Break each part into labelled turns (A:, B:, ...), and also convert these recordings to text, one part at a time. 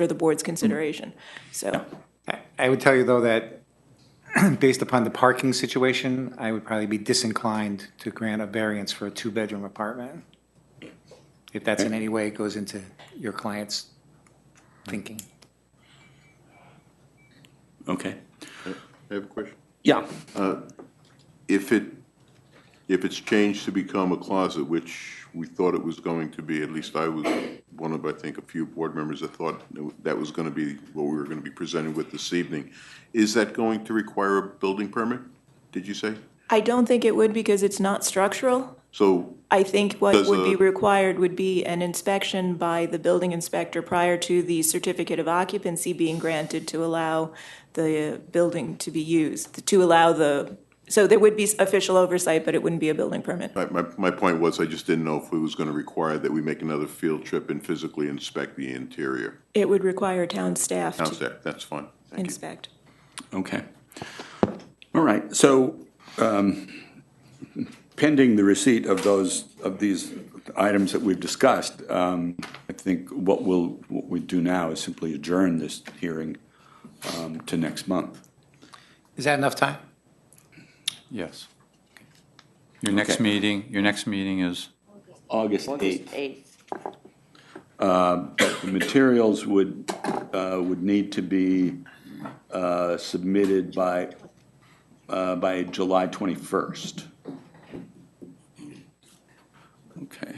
A: for the board's consideration. So,
B: I- I would tell you, though, that based upon the parking situation, I would probably be disinclined to grant a variance for a two-bedroom apartment, if that's in any way goes into your client's thinking.
C: Okay.
D: I have a question.
C: Yeah.
D: If it, if it's changed to become a closet, which we thought it was going to be, at least I was one of, I think, a few board members that thought that was going to be what we were going to be presented with this evening, is that going to require a building permit, did you say?
A: I don't think it would because it's not structural.
D: So,
A: I think what
D: Does
A: would be
D: the-
A: required would be an inspection by the building inspector prior to the certificate of occupancy being granted to allow the building to be used, to allow the, so there would be official oversight, but it wouldn't be a building permit.
D: my, my, my point was, I just didn't know if it was going to require that we make another field trip and physically inspect the interior.
A: It would require town staff
D: How's
A: to
D: that? That's fine. Thank you.
A: inspect.
C: Okay. All right. So um, pending the receipt of those, of these items that we've discussed, um, I think what we'll, what we do now is simply adjourn this hearing um, to next month.
B: Is that enough time?
C: Yes.
E: Your next
C: Okay.
E: meeting, your next meeting is,
C: August 8th.
F: Eighth.
C: The materials would, uh, would need to be uh, submitted by, uh, by July 21st. Okay.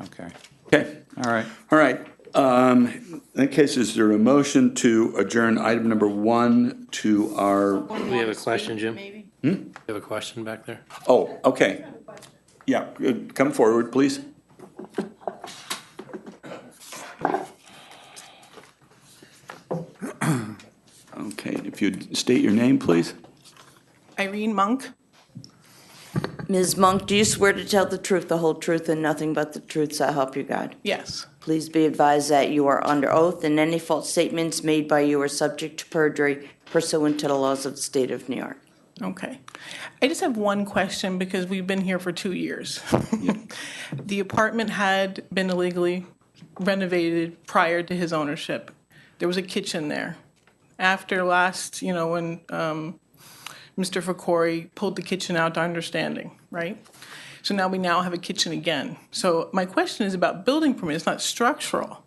E: okay,
C: Okay.
E: all right.
C: All right. Um, In that case, is there a motion to adjourn item number one to our,
G: We have a question, Jim?
F: Maybe.
G: You have a question back there?
C: oh, okay. Yeah, uh, come forward, please. Okay, if you'd state your name, please.
H: Irene Monk.
F: Ms. Monk, do you swear to tell the truth, the whole truth, and nothing but the truth, so help you God?
H: Yes.
F: Please be advised that you are under oath, and any false statements made by you are subject to perjury pursuant to the laws of the state of New York.
H: Okay. I just have one question because we've been here for two years. The apartment had been illegally renovated prior to his ownership. There was a kitchen there. After last, you know, when um, Mr. Fakori pulled the kitchen out to understanding, right? So now we now have a kitchen again. So my question is about building permit, it's not structural.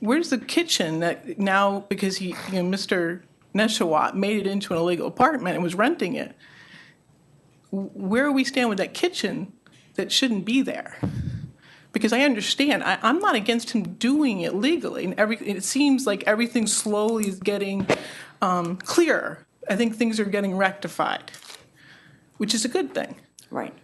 H: Where's the kitchen that now, because he, you know, Mr. Neshawat made it into an illegal apartment and was renting it? Where we stand with that kitchen that shouldn't be there? Because I understand, I, I'm not against him doing it legally, and every, it seems like everything slowly is getting um, clearer. I think things are getting rectified, which is a good thing.
F: Right.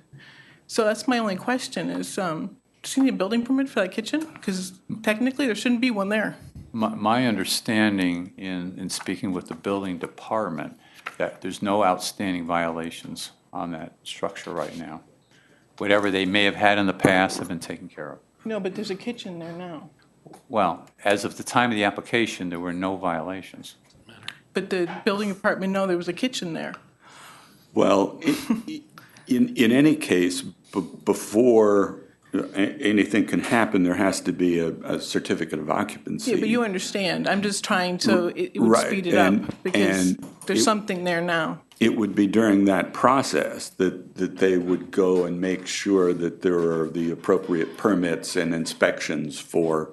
H: So that's my only question is, um, does he need a building permit for that kitchen? Because technically, there shouldn't be one there.
E: My, my understanding in, in speaking with the building department, that there's no outstanding violations on that structure right now. Whatever they may have had in the past have been taken care of.
H: No, but there's a kitchen there now.
E: Well, as of the time of the application, there were no violations.
H: But the building department, no, there was a kitchen there.
C: Well, i- in, in any case, b- before a- anything can happen, there has to be a, a certificate of occupancy.
H: Yeah, but you understand. I'm just trying to, it, it would
C: Right,
H: speed it
C: and-
H: up because
C: and
H: there's
C: it-
H: something there now.
C: It would be during that process that, that they would go and make sure that there are the appropriate permits and inspections for,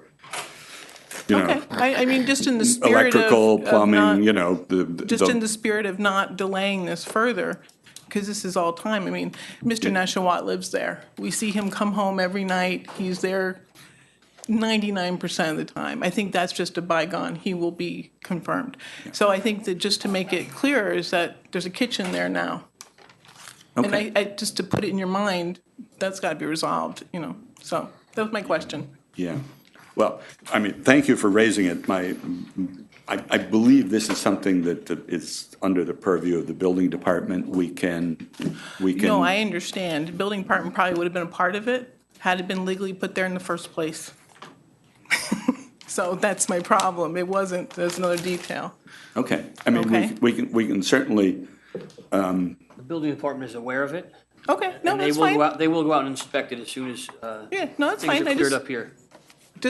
C: you
H: Okay.
C: know,
H: I, I mean, just in the spirit of,
C: electrical,
H: of not,
C: plumbing, you know, the.
H: just in the spirit of not delaying this further, because this is all time. I mean, Mr. Nashawat lives there. We see him come home every night. He's there 99% of the time. I think that's just a bygone. He will be confirmed. So I think that just to make it clearer is that there's a kitchen there now. And I, I, just to put it in your mind, that's got to be resolved, you know. So that was my question.
C: Yeah. Well, I mean, thank you for raising it. My, I, I believe this is something that is under the purview of the building department. We can, we can.
H: No, I understand. Building department probably would have been a part of it had it been legally put there in the first place. So that's my problem. It wasn't, there's another detail.
C: Okay. I mean, we,
H: Okay.
C: we can, we can certainly,
G: The building department is aware of it.
H: Okay, no,
G: and they
H: that's
G: will go
H: fine.
G: out- They will go out and inspect it as soon as, uh,
H: Yeah, no, that's
G: things
H: fine.
G: are
H: I
G: cleared
H: just,
G: up here.